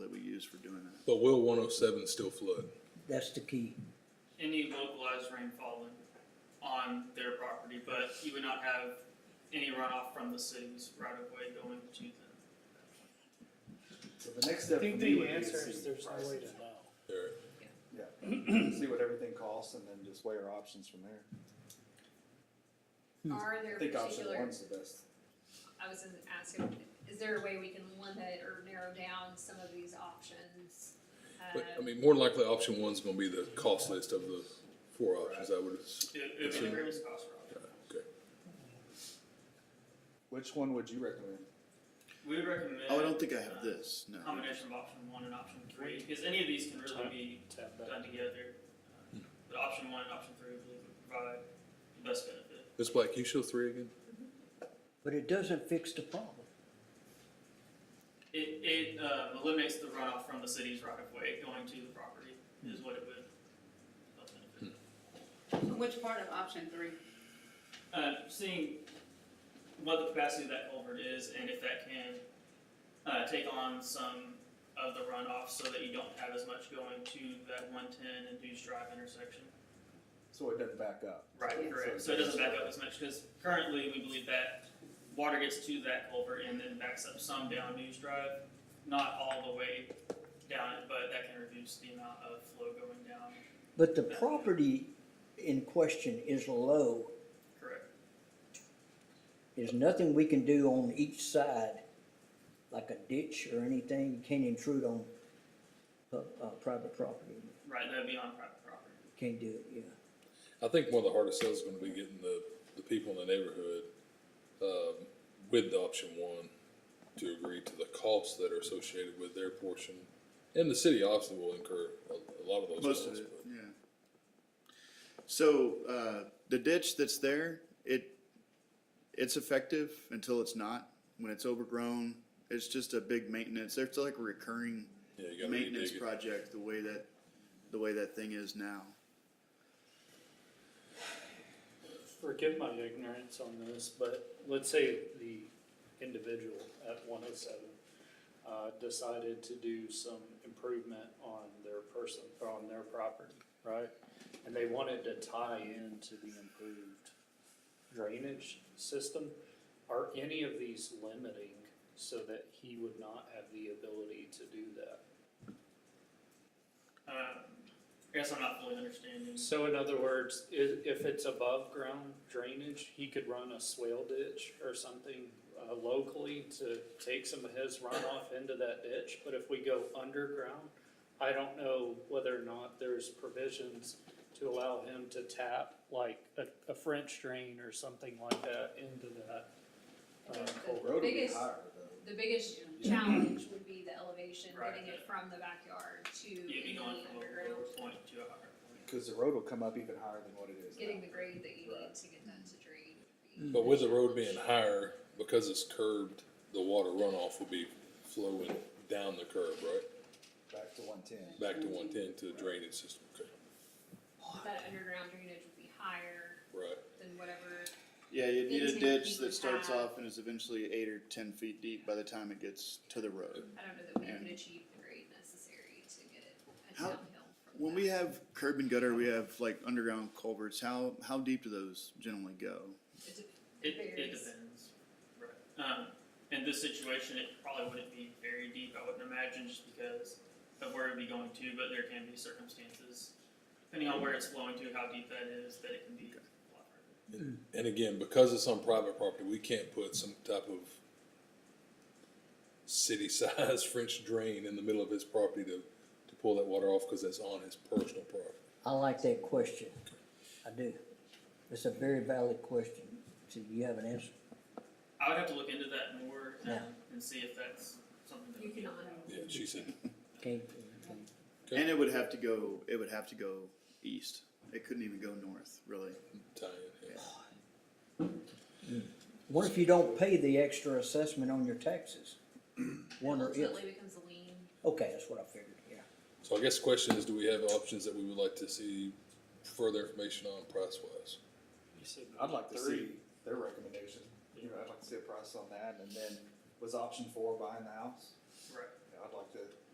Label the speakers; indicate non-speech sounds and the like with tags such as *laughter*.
Speaker 1: But will one oh seven still flood?
Speaker 2: That's the key.
Speaker 3: any localized rain falling on their property, but you would not have any runoff from the city's right of way going to them.
Speaker 4: So the next
Speaker 5: I
Speaker 4: step for
Speaker 5: think
Speaker 4: me
Speaker 5: the
Speaker 4: would be to
Speaker 5: answer is
Speaker 4: see
Speaker 5: there's no way to
Speaker 4: prices.
Speaker 5: know.
Speaker 1: Eric?
Speaker 4: Yeah, see what everything costs and then just weigh our options from there.
Speaker 1: Hmm.
Speaker 6: Are
Speaker 4: I
Speaker 6: there
Speaker 4: think option
Speaker 6: particular,
Speaker 4: one's the best.
Speaker 6: I was gonna ask asking, is there a way we can limit or narrow down some of these options?
Speaker 1: But, I
Speaker 6: Um,
Speaker 1: mean, more than likely, option one's gonna be the cost list of the four options, I would, ass-
Speaker 3: It, it would be the greatest cost for us.
Speaker 1: okay.
Speaker 4: Which one would you recommend?
Speaker 3: We would recommend.
Speaker 7: Oh, I don't think I
Speaker 3: uh,
Speaker 7: have this, no.
Speaker 3: Combination of option one and option three, because any of these can really be
Speaker 5: Tap back.
Speaker 3: done together. Uh,
Speaker 7: Hmm.
Speaker 3: But option one and option three, we believe would provide the best benefit.
Speaker 1: Ms. Black, can you show three again?
Speaker 2: But it doesn't fix the problem.
Speaker 3: It, it, um, eliminates the runoff from the city's right of way going to the property
Speaker 7: Hmm.
Speaker 3: is what it would. help benefit.
Speaker 8: Which part of option three?
Speaker 3: uh, seeing what the capacity of that culvert is and if that can uh, take on some of the runoff so that you don't have as much going to that 110 and Deuce Drive intersection.
Speaker 4: So it doesn't back up.
Speaker 3: Right, correct. So it doesn't back up as much because currently we believe that water gets to that culvert and then backs up some down Deuce Drive, not all the way down it, but that can reduce the amount of flow going down.
Speaker 2: But the property in question is low.
Speaker 3: Correct.
Speaker 2: There's nothing we can do on each side, like a ditch or anything. You can't intrude on, uh, uh, private property.
Speaker 3: Right, that would be on private property.
Speaker 2: Can't do it, yeah.
Speaker 1: I think one of the hardest sales is gonna be getting the, the people in the neighborhood, um, with the option one to agree to the costs that are associated with their portion. And the city obviously will incur a, a lot of those
Speaker 7: Most
Speaker 1: costs.
Speaker 7: of it,
Speaker 1: but-
Speaker 7: yeah. So, uh, the ditch that's there, it, it's effective until it's not. When it's overgrown, it's just a big maintenance, it's like a recurring
Speaker 1: Yeah, you gotta
Speaker 7: maintenance
Speaker 1: redig it.
Speaker 7: project, the way that, the way that thing is now.
Speaker 5: Forgive my ignorance on this, but let's say the individual at one oh seven uh, decided to do some improvement on their person, or on their property, right? And they wanted to tie into the improved drainage system. Are any of these limiting so that he would not have the ability to do that?
Speaker 3: Um, I guess I'm not fully understanding.
Speaker 5: So in other words, i- if it's above ground drainage, he could run a swale ditch or something uh, locally to take some of his runoff into that ditch, but if we go underground, I don't know whether or not there's provisions to allow him to tap like a, a French drain or something like that into that. uh, culvert.
Speaker 4: Road would be
Speaker 6: Biggest-
Speaker 4: higher though.
Speaker 6: The biggest challenge would be the elevation,
Speaker 3: Right,
Speaker 6: getting
Speaker 3: yeah.
Speaker 6: it from the backyard to
Speaker 3: You'd be
Speaker 6: the
Speaker 3: going from a lower
Speaker 6: underground,
Speaker 3: point to a higher point.
Speaker 4: Cause the road will come up even higher than what it is now.
Speaker 6: getting the grade that you
Speaker 4: Right.
Speaker 6: need to get that to drain. would be
Speaker 1: Hmm. But with the road
Speaker 6: challenge.
Speaker 1: being higher, because it's curved, the water runoff will be flowing down the curb, right?
Speaker 4: Back to one ten.
Speaker 1: Back to one ten to the drainage system, okay,
Speaker 6: That underground drainage would be higher
Speaker 1: right.
Speaker 6: than whatever,
Speaker 7: Yeah, you need a
Speaker 6: Intake
Speaker 7: ditch
Speaker 6: you
Speaker 7: that
Speaker 6: would
Speaker 7: starts
Speaker 6: have.
Speaker 7: off and is eventually eight or ten feet deep by the time it gets to the road.
Speaker 6: I don't know that we
Speaker 7: Yeah.
Speaker 6: could achieve the grade necessary to get it a
Speaker 7: How-
Speaker 6: downhill from
Speaker 7: When
Speaker 6: that.
Speaker 7: we have curb and gutter, we have like underground culverts, how, how deep do those generally go?
Speaker 6: It de-
Speaker 3: It, it
Speaker 6: varies.
Speaker 3: depends. Right. Um, in this situation, it probably wouldn't be very deep, I wouldn't imagine, just because of where it'd be going to, but there can be circumstances, depending on where it's flowing to, how deep that is, that it can be. a lot further.
Speaker 1: And again, because it's on private property, we can't put some type of city-sized *laughs* French drain in the middle of his property to, to pull that water off, cause that's on his personal property.
Speaker 2: I like that question. I do. It's a very valid question. See, you have an answer.
Speaker 3: I would have to look into that more um,
Speaker 2: Yeah.
Speaker 3: and see if that's something that.
Speaker 6: You
Speaker 3: we can
Speaker 6: cannot.
Speaker 3: allow.
Speaker 1: Yeah, she said,
Speaker 2: Can't,
Speaker 1: Okay.
Speaker 7: And it would have to go, it would have to go east. It couldn't even go north, really.
Speaker 1: tie in, yeah.
Speaker 2: what if you don't pay the extra assessment on your taxes? Wonder if,
Speaker 6: Ultimately becomes a lien.
Speaker 2: okay, that's what I figured, yeah.
Speaker 1: So I guess the question is, do we have options that we would like to see further information on price-wise?
Speaker 5: You said
Speaker 4: I'd like to
Speaker 5: three.
Speaker 4: see their recommendation, you know, I'd like to see a price on that, and then was option four buying the house?